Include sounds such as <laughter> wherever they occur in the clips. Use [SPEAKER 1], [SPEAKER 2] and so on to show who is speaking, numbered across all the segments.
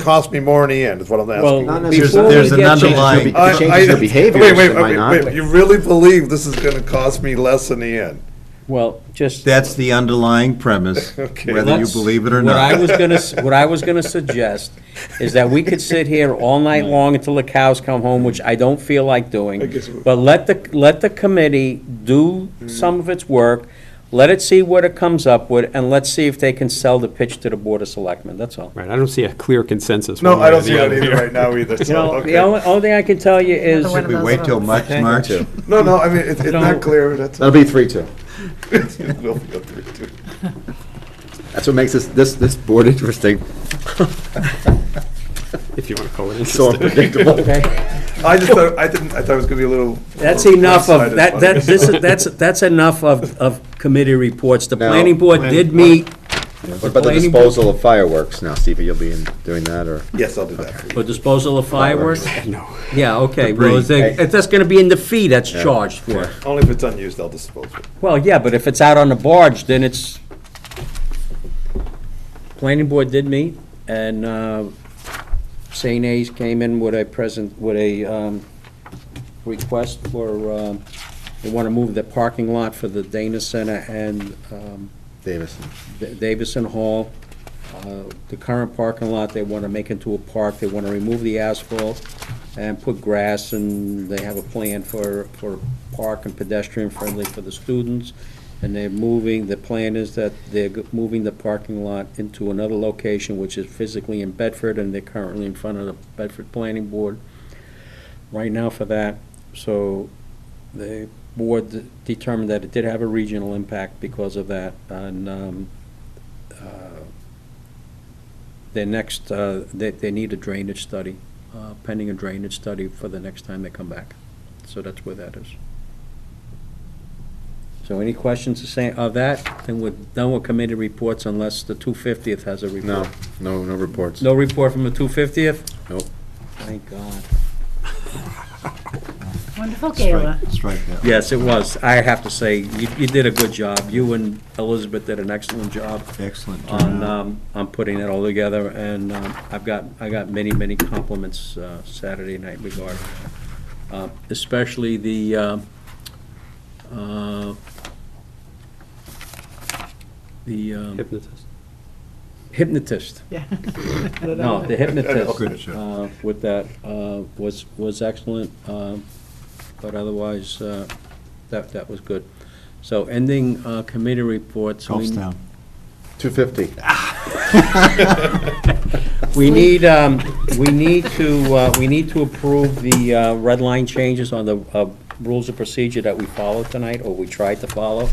[SPEAKER 1] cost me more in the end, is what I'm asking.
[SPEAKER 2] Well,
[SPEAKER 3] Not
[SPEAKER 2] before
[SPEAKER 3] necessarily.
[SPEAKER 2] we
[SPEAKER 3] There's
[SPEAKER 2] get
[SPEAKER 3] another
[SPEAKER 2] to-
[SPEAKER 3] line. It
[SPEAKER 1] I-
[SPEAKER 3] changes
[SPEAKER 1] I-
[SPEAKER 3] their behavior,
[SPEAKER 1] wait, wait,
[SPEAKER 3] it might
[SPEAKER 1] wait,
[SPEAKER 3] not.
[SPEAKER 1] wait, You really believe this is gonna cost me less in the end?
[SPEAKER 2] Well, just.
[SPEAKER 3] That's the underlying premise,
[SPEAKER 1] Okay.
[SPEAKER 3] whether you
[SPEAKER 2] Let's-
[SPEAKER 3] believe it or
[SPEAKER 2] What I
[SPEAKER 3] not.
[SPEAKER 2] was
[SPEAKER 3] <laughs>
[SPEAKER 2] gonna, s- what I was gonna suggest is that we could sit here all night long until the cows come home, which I don't feel like doing. But let the, let the committee do
[SPEAKER 3] Mm.
[SPEAKER 2] some of its work, let it see what it comes up with, and let's see if they can sell the pitch to the Board of Selectmen, that's all.
[SPEAKER 4] Right, I don't see a clear consensus.
[SPEAKER 1] No,
[SPEAKER 4] one way
[SPEAKER 1] I
[SPEAKER 4] or
[SPEAKER 1] don't
[SPEAKER 4] the
[SPEAKER 1] see that
[SPEAKER 4] other
[SPEAKER 1] either
[SPEAKER 4] here.
[SPEAKER 1] right now either,
[SPEAKER 2] You
[SPEAKER 1] so,
[SPEAKER 2] know, the
[SPEAKER 1] okay.
[SPEAKER 2] only, only thing I can tell you is,
[SPEAKER 5] Another one of
[SPEAKER 3] We
[SPEAKER 5] those
[SPEAKER 3] wait till
[SPEAKER 5] votes.
[SPEAKER 3] March, March?
[SPEAKER 1] No, no, I mean, it's, it's
[SPEAKER 2] No.
[SPEAKER 1] not clear, that's.
[SPEAKER 3] That'll be three, two.
[SPEAKER 1] <laughs> it will be up there, too.
[SPEAKER 3] That's what makes this, this, this board <laughs> interesting,
[SPEAKER 4] If you want to call it
[SPEAKER 3] so
[SPEAKER 4] interesting.
[SPEAKER 3] unpredictable.
[SPEAKER 2] okay,
[SPEAKER 1] I just thought, I didn't, I thought it was gonna be a little.
[SPEAKER 2] that's enough of,
[SPEAKER 1] one-sided,
[SPEAKER 2] that,
[SPEAKER 1] but-
[SPEAKER 2] that, this is, <laughs> that's, that's enough of, of committee reports. The
[SPEAKER 3] No.
[SPEAKER 2] planning board did meet,
[SPEAKER 3] What about the
[SPEAKER 2] Planning-
[SPEAKER 3] disposal of fireworks now, Stevie, you'll be in, doing that, or?
[SPEAKER 1] <laughs> Yes, I'll do that.
[SPEAKER 2] for disposal of fireworks.
[SPEAKER 4] No.
[SPEAKER 2] Yeah, okay, well, is there-
[SPEAKER 3] Debris.
[SPEAKER 2] if that's gonna be in the fee that's charged for. it.
[SPEAKER 1] Only if it's unused, I'll dispose of it.
[SPEAKER 2] Well, yeah, but if it's out on the barge, then it's, planning board did meet, and, uh, St. A's came in with a present, with a, um, request for, um, they wanna move the parking lot for the Dana Center and, um,
[SPEAKER 3] Davison.
[SPEAKER 2] Da- Davison Hall, uh, the current parking lot, they want to make into a park, they want to remove the asphalt and put grass, and they have a plan for, for park and pedestrian friendly for the students, and they're moving, the plan is that they're go- moving the parking lot into another location, which is physically in Bedford, and they're currently in front of the Bedford Planning Board right now for that, so the board determined that it did have a regional impact because of that, and, um, uh, their next, uh, they, they need a drainage study, uh, pending a drainage study for the next time they come back. So that's where that is. So any questions to say of that? Then we're done with committee reports unless the two fiftieth has a report.
[SPEAKER 3] No, no, no reports.
[SPEAKER 2] No report from the two fiftieth?
[SPEAKER 3] Nope.
[SPEAKER 2] Thank God.
[SPEAKER 5] Wonderful gala.
[SPEAKER 3] Strike that.
[SPEAKER 2] Yes, it was. I have to say, you, you did a good job. You and Elizabeth did an excellent job
[SPEAKER 3] Excellent.
[SPEAKER 2] on, um, on putting it all together, and, um, I've got, I got many, many compliments, uh, Saturday night regarding that. Uh, Especially the, um, uh, the um,
[SPEAKER 4] Hypnotist.
[SPEAKER 2] hypnotist.
[SPEAKER 5] Yeah.
[SPEAKER 2] No, the
[SPEAKER 3] Good
[SPEAKER 2] hypnotist
[SPEAKER 3] show.
[SPEAKER 2] uh, with that uh, was, was excellent, um, but otherwise, uh, that, that was good. So ending uh, committee reports. we-
[SPEAKER 3] Two fifty.
[SPEAKER 2] We need, um, we need to, uh, we need to approve the uh, red line changes on the uh, rules of procedure that we followed tonight, or we tried to follow.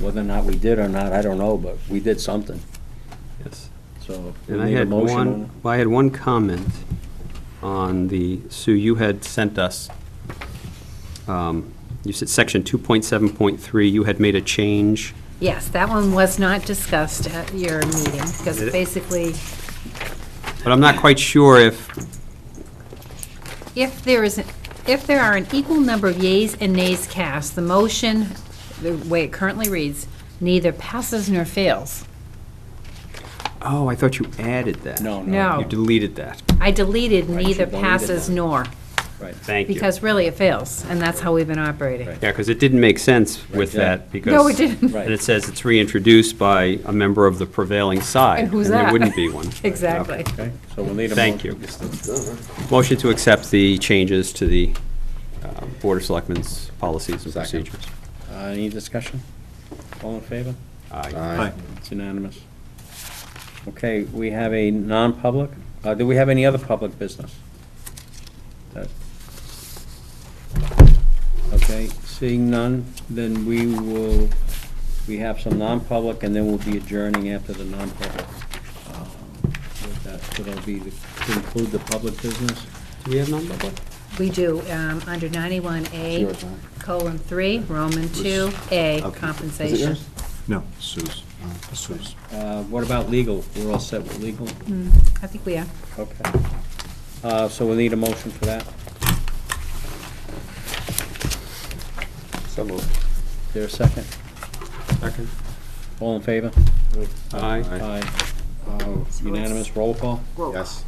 [SPEAKER 2] Whether or not we did or not, I don't know, but we did something,
[SPEAKER 4] Yes.
[SPEAKER 2] so. we
[SPEAKER 4] And I
[SPEAKER 2] need a
[SPEAKER 4] had
[SPEAKER 2] motion on it.
[SPEAKER 4] one, well, I had one comment on the, Sue, you had sent us, um, you said section 2.7.3, you had made a change.
[SPEAKER 5] Yes, that one was not discussed at your meeting, because
[SPEAKER 4] Did it?
[SPEAKER 5] basically,
[SPEAKER 4] But I'm not quite sure if,
[SPEAKER 5] if there is, if there are an equal number of yeas and nays cast, the motion, the way it currently reads, neither passes nor fails.
[SPEAKER 4] oh, I thought you added that.
[SPEAKER 2] No, no,
[SPEAKER 4] You
[SPEAKER 5] No,
[SPEAKER 4] deleted that.
[SPEAKER 5] I deleted neither
[SPEAKER 2] deleted
[SPEAKER 5] passes
[SPEAKER 2] that.
[SPEAKER 5] nor,
[SPEAKER 2] right.
[SPEAKER 4] Thank you.
[SPEAKER 5] because really it fails, and that's how we've been operating.
[SPEAKER 4] Yeah, because it didn't make sense with
[SPEAKER 2] yeah.
[SPEAKER 4] that, because.
[SPEAKER 5] No, it didn't.
[SPEAKER 2] Right.
[SPEAKER 4] And it says it's reintroduced by a member of the prevailing side.
[SPEAKER 5] And who's
[SPEAKER 4] there
[SPEAKER 5] that?
[SPEAKER 4] wouldn't be one.
[SPEAKER 5] <laughs> Exactly.
[SPEAKER 2] Okay, so we'll need a. uh,
[SPEAKER 4] Thank
[SPEAKER 2] motion.
[SPEAKER 4] Motion to accept the changes to the uh, Board of Selectmen's policies and
[SPEAKER 3] Second.
[SPEAKER 4] procedures.
[SPEAKER 2] Uh, Any discussion? All in favor?
[SPEAKER 4] Aye.
[SPEAKER 3] Aye.
[SPEAKER 2] It's unanimous. Okay, we have a non-public. Uh, Do we have any other public business? That- Okay, seeing none, then we will, we have some non-public, and then we'll be adjourning after the non-public. Uh, with that, So that'll be, the- to include the public business.
[SPEAKER 4] Do we have non-public?
[SPEAKER 5] We do, um, under 91A, colon 3, Roman 2A, compensation.
[SPEAKER 3] No, Sue's. Sue's.
[SPEAKER 2] Uh, What about legal? We're all set with legal?
[SPEAKER 5] I think we are.
[SPEAKER 2] Okay. Uh, So we'll need a motion for that.
[SPEAKER 1] So moved.
[SPEAKER 2] Is there a second?
[SPEAKER 4] Second.
[SPEAKER 2] All in favor?
[SPEAKER 4] Aye.
[SPEAKER 2] Aye. Uh, Unanimous roll call?
[SPEAKER 3] Yes.